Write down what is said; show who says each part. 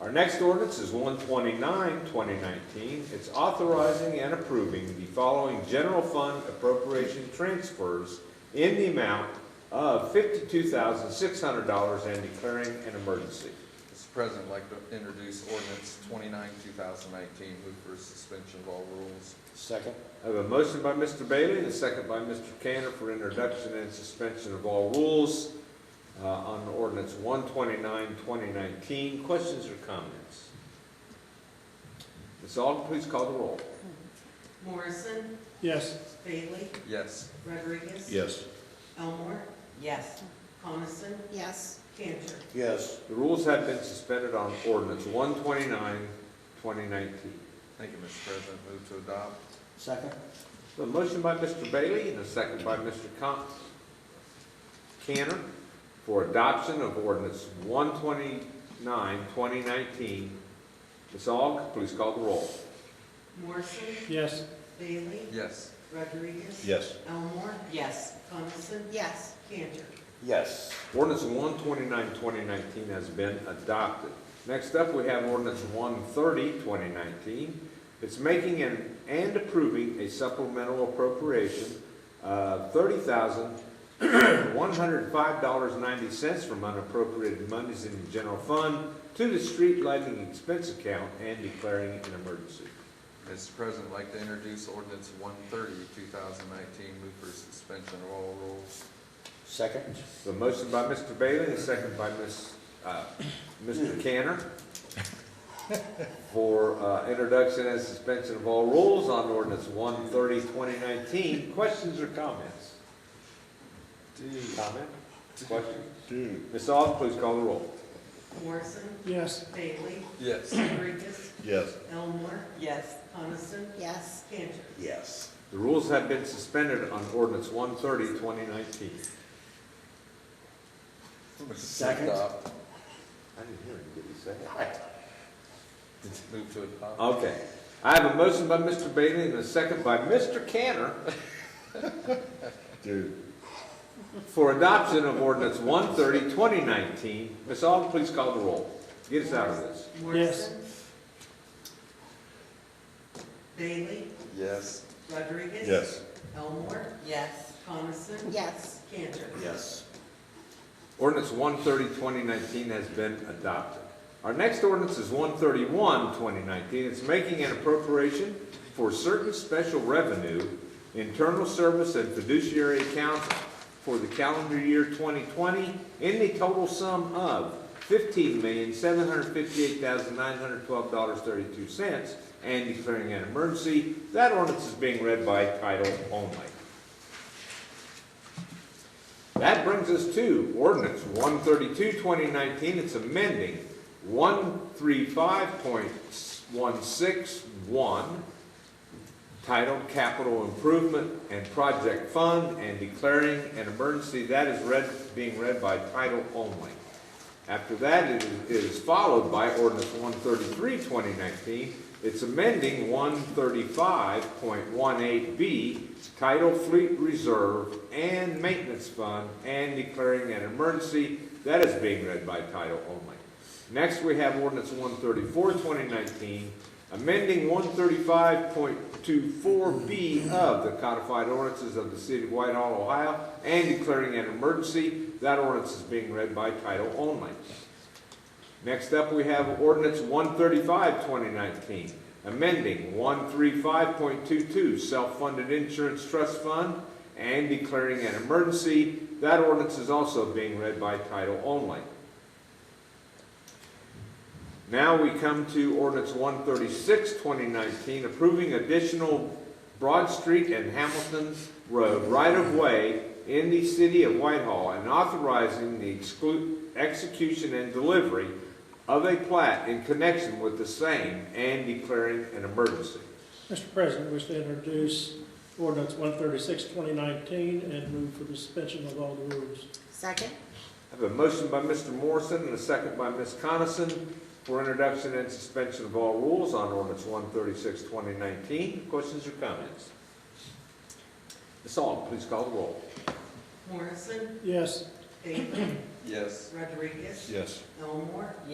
Speaker 1: Our next ordinance is 129, 2019. It's authorizing and approving the following general fund appropriation transfers in the amount of $52,600 and declaring an emergency.
Speaker 2: Mr. President, I'd like to introduce ordinance twenty-nine, two thousand nineteen. Move for suspension of all rules.
Speaker 3: Second.
Speaker 1: I have a motion by Mr. Bailey and a second by Mr. Canner for introduction and suspension of all rules uh, on ordinance 129, 2019. Questions or comments? Ms. Aug, please call the roll.
Speaker 4: Morrison,
Speaker 3: Yes.
Speaker 4: Bailey,
Speaker 2: Yes.
Speaker 4: Rodriguez.
Speaker 3: Yes.
Speaker 4: Elmore,
Speaker 5: Yes.
Speaker 4: Coniston,
Speaker 5: Yes.
Speaker 4: Cantor.
Speaker 3: Yes.
Speaker 1: The rules have been suspended on ordinance 129, 2019.
Speaker 2: Thank you, Mr. President. Move to adopt.
Speaker 3: Second.
Speaker 1: A motion by Mr. Bailey and a second by Mr. Con- Canner for adoption of ordinance 129, 2019. Ms. Aug, please call the roll.
Speaker 4: Morrison,
Speaker 3: Yes.
Speaker 4: Bailey,
Speaker 2: Yes.
Speaker 4: Rodriguez.
Speaker 3: Yes.
Speaker 4: Elmore,
Speaker 5: Yes.
Speaker 4: Coniston,
Speaker 5: Yes.
Speaker 4: Cantor.
Speaker 3: Yes.
Speaker 1: Ordinance 129, 2019 has been adopted. Next up, we have ordinance 130, 2019. It's making an- and approving a supplemental appropriation of $30,105.90 from unappropriated monies in the general fund to the street lighting expense account and declaring an emergency.
Speaker 2: Mr. President, I'd like to introduce ordinance one thirty, two thousand nineteen. Move for suspension of all rules.
Speaker 3: Second.
Speaker 1: The motion by Mr. Bailey, and second by Ms., uh, Mr. Canner for, uh, introduction and suspension of all rules on ordinance 130, 2019. Questions or comments? Comment? Question? Ms. Aug, please call the roll.
Speaker 4: Morrison,
Speaker 3: Yes.
Speaker 4: Bailey,
Speaker 2: Yes.
Speaker 4: Rodriguez,
Speaker 3: Yes.
Speaker 4: Elmore,
Speaker 5: Yes.
Speaker 4: Coniston,
Speaker 5: Yes.
Speaker 4: Cantor.
Speaker 3: Yes.
Speaker 1: The rules have been suspended on ordinance 130, 2019.
Speaker 2: Move to
Speaker 3: Second.
Speaker 2: adopt.
Speaker 1: I didn't hear him, did he say that?
Speaker 2: Move to adopt.
Speaker 1: Okay. I have a motion by Mr. Bailey and a second by Mr. Canner
Speaker 3: Dude.
Speaker 1: for adoption of ordinance 130, 2019. Ms. Aug, please call the roll. Get us out of this.
Speaker 4: Morrison. Bailey,
Speaker 2: Yes.
Speaker 4: Rodriguez.
Speaker 3: Yes.
Speaker 4: Elmore,
Speaker 5: Yes.
Speaker 4: Coniston,
Speaker 5: Yes.
Speaker 4: Cantor.
Speaker 3: Yes.
Speaker 1: Ordinance 130, 2019 has been adopted. Our next ordinance is 131, 2019. It's making an appropriation for certain special revenue, internal service and fiduciary accounts for the calendar year 2020 in the total sum of $15,758,912.32 and declaring an emergency. That ordinance is being read by title only. That brings us to ordinance 132, 2019. It's amending 135.161, titled Capital Improvement and Project Fund, and declaring an emergency. That is read, being read by title only. After that, it is- it is followed by ordinance 133, 2019. It's amending 135.18B, title Fleet Reserve and Maintenance Fund, and declaring an emergency. That is being read by title only. Next, we have ordinance 134, 2019, amending 135.24B of the codified ordinances of the city of Whitehall, Ohio, and declaring an emergency. That ordinance is being read by title only. Next up, we have ordinance 135, 2019, amending 135.22, self-funded insurance trust fund, and declaring an emergency. That ordinance is also being read by title only. Now we come to ordinance 136, 2019, approving additional Broad Street and Hamilton Road right-of-way in the city of Whitehall and authorizing the exclu- execution and delivery of a plat in connection with the same and declaring an emergency.
Speaker 6: Mr. President, wish to introduce ordinance 136, 2019, and move for the suspension of all the rules.
Speaker 5: Second?
Speaker 1: I have a motion by Mr. Morrison and a second by Ms. Coniston for introduction and suspension of all rules on ordinance 136, 2019. Questions or comments? Ms. Aug, please call the roll.
Speaker 4: Morrison,
Speaker 6: Yes.
Speaker 4: Bailey,
Speaker 2: Yes.
Speaker 4: Rodriguez.
Speaker 3: Yes.
Speaker 4: Elmore,